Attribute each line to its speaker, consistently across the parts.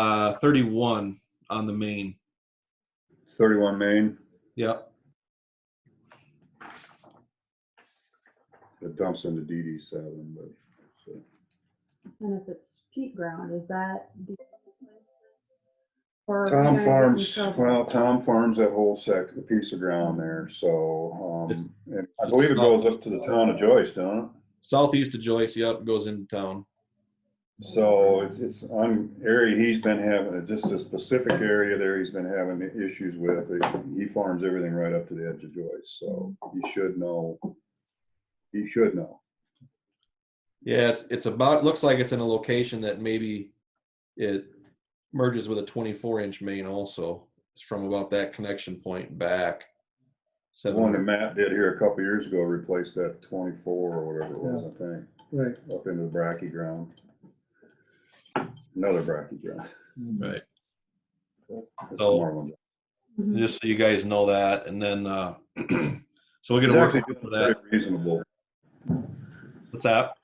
Speaker 1: uh, 31 on the main.
Speaker 2: 31 Main,
Speaker 1: Yep.
Speaker 2: it dumps into DD seven, but, so,
Speaker 3: And if it's peat ground, is that? the- or can I
Speaker 2: Tom
Speaker 3: get in
Speaker 2: Farms,
Speaker 3: trouble?
Speaker 2: well, Tom Farms that whole sec, a piece of ground there, so, um, and I
Speaker 1: it's
Speaker 2: believe it
Speaker 1: not-
Speaker 2: goes up to the town of Joyce, don't it?
Speaker 1: Southeast of Joyce, yep, goes into town.
Speaker 2: So it's, it's on area he's been having, just a specific area there he's been having issues with. He farms everything right up to the edge of Joyce, so he should know. He should know.
Speaker 1: Yeah, it's, it's about, looks like it's in a location that maybe it merges with a 24 inch main also. It's from about that connection point back.
Speaker 2: The one that
Speaker 1: Seven,
Speaker 2: Matt did here a couple years ago replaced that twenty-four or whatever it was, I think,
Speaker 4: Right.
Speaker 2: up into the bracky ground. Another bracky ground.
Speaker 1: right.
Speaker 2: That's
Speaker 1: So-
Speaker 2: more one.
Speaker 3: Mhm.
Speaker 1: just so you guys know that, and then, uh, so we'll get
Speaker 2: It's
Speaker 1: a work
Speaker 2: actually
Speaker 1: for that.
Speaker 2: pretty reasonable.
Speaker 1: What's that?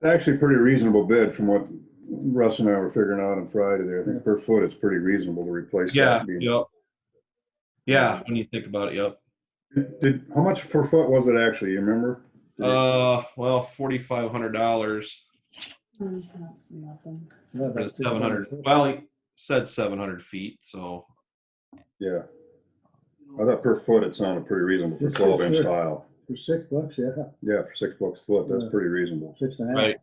Speaker 2: It's actually a pretty reasonable bid from what Russ and I were figuring out on Friday there. I think per foot, it's pretty reasonable to replace. that
Speaker 1: Yeah,
Speaker 2: being-
Speaker 1: yep. Yeah, when you think about it, yep.
Speaker 2: Did, how much per foot was it actually, you remember?
Speaker 1: Uh, well, forty-five hundred dollars,
Speaker 3: Mm, I don't see nothing.
Speaker 4: Yeah, that's just uh,
Speaker 1: seven hundred,
Speaker 4: about it.
Speaker 1: well, he said seven hundred feet, so,
Speaker 2: Yeah. I thought per foot it sounded pretty reasonable for
Speaker 4: Sure,
Speaker 2: twelve inch
Speaker 4: sure.
Speaker 2: tile.
Speaker 4: For six bucks, yeah,
Speaker 2: Yeah, for six bucks a foot, that's
Speaker 4: Yeah.
Speaker 2: pretty reasonable.
Speaker 4: six and a half.
Speaker 1: right.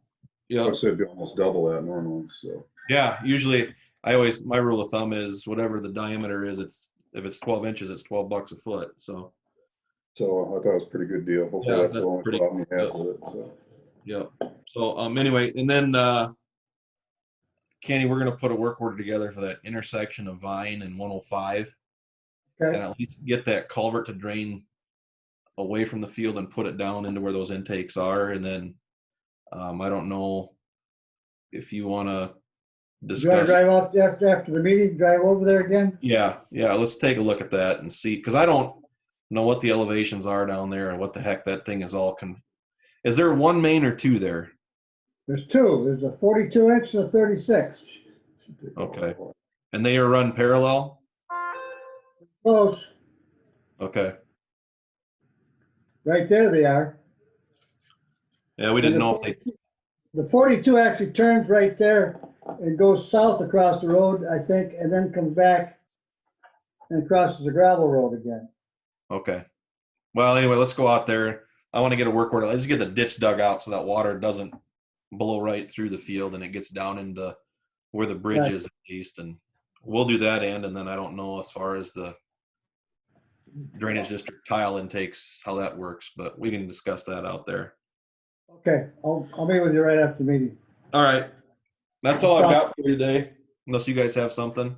Speaker 1: Yep,
Speaker 2: I'd say it'd be almost double that normally, so.
Speaker 1: yeah, usually, I always, my rule of thumb is whatever the diameter is, it's, if it's twelve inches, it's twelve bucks a foot, so,
Speaker 2: So I thought it was a pretty good deal. Hopefully
Speaker 1: Yeah,
Speaker 2: that's the
Speaker 1: that's
Speaker 2: only
Speaker 1: pretty-
Speaker 2: problem you have with it, so.
Speaker 1: yep. So, um, anyway, and then, uh, Kenny, we're gonna put a work order together for that intersection of Vine and one oh five. and
Speaker 4: Okay,
Speaker 1: at least get that culvert to drain away from the field and put it down into where those intakes are. And then, um, I don't know if you want to
Speaker 4: you wanna
Speaker 1: discuss.
Speaker 4: drive out after, after the meeting, drive over there again?
Speaker 1: Yeah, yeah, let's take a look at that and see, because I don't know what the elevations are down there and what the heck that thing is all. Con- is there one main or two there?
Speaker 4: There's two, there's a forty-two inch and a thirty-six.
Speaker 1: Okay. And they are run parallel?
Speaker 4: Close,
Speaker 1: Okay.
Speaker 4: right there they are.
Speaker 1: Yeah, we didn't know if they,
Speaker 4: The forty-two actually turns right there and goes south across the road, I think, and then comes back and crosses the gravel road again.
Speaker 1: okay. Well, anyway, let's go out there. I want to get a work order. Let's get the ditch dug out so that water doesn't blow right through the field and it gets down into where the bridge
Speaker 4: Right.
Speaker 1: is at least. And we'll do that end. And then I don't know as far as the drainage district tile intakes, how that works, but we can discuss that out there.
Speaker 4: Okay, I'll, I'll meet with you right after the meeting.
Speaker 1: All right. That's all I've got for you today, unless you guys have something.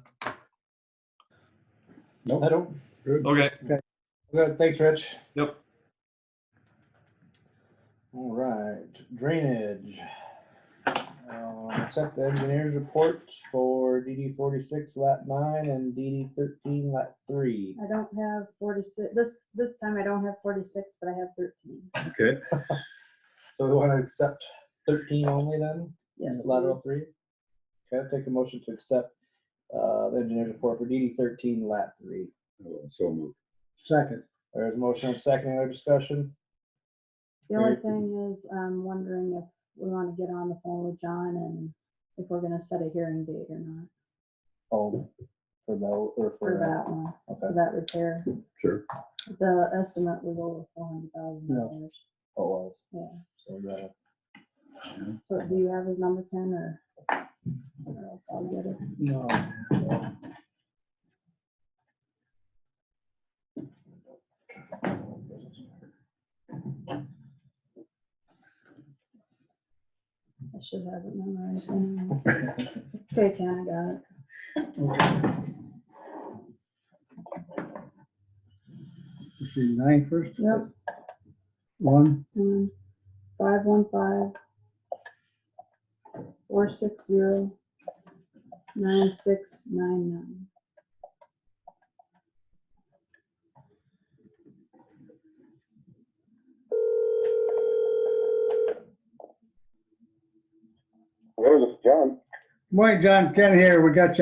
Speaker 2: Nope.
Speaker 5: I don't,
Speaker 1: Okay.
Speaker 5: good, thanks, Rich.
Speaker 1: Yep.
Speaker 5: All right, drainage. Uh, Accept the engineer's report for DD forty-six lat nine and DD thirteen lat three.
Speaker 3: I don't have forty-six, this, this time I don't have forty-six, but I have thirteen.
Speaker 2: Okay,
Speaker 5: So we want to accept thirteen only then?
Speaker 3: Yes.
Speaker 5: Lateral three? Okay, I'll take a motion to accept, uh, the engineer's report for DD thirteen lat three.
Speaker 2: so moved.
Speaker 4: Second,
Speaker 5: There's a motion and second, any other discussion?
Speaker 3: The only thing is, I'm wondering if we want to get on the phone with John and if we're gonna set a hearing date or not
Speaker 5: Oh, for that, or
Speaker 3: for
Speaker 5: for
Speaker 3: that one,
Speaker 5: that,
Speaker 3: for
Speaker 5: okay,
Speaker 3: that repair.
Speaker 2: Sure.
Speaker 3: The estimate was over four hundred thousand dollars.
Speaker 5: oh, well.
Speaker 3: Yeah.
Speaker 5: So, uh,
Speaker 3: So do you have his number, Ken, or? or else I'll get it.
Speaker 5: No.
Speaker 3: I should have it memorized. anyway. Okay, Ken, I got it.
Speaker 4: this is nine first?
Speaker 3: Yep.
Speaker 4: One,
Speaker 3: Um, five one five. Four six zero. Nine six nine nine.
Speaker 6: Hello, this is John.
Speaker 4: morning, John, Ken here, we got you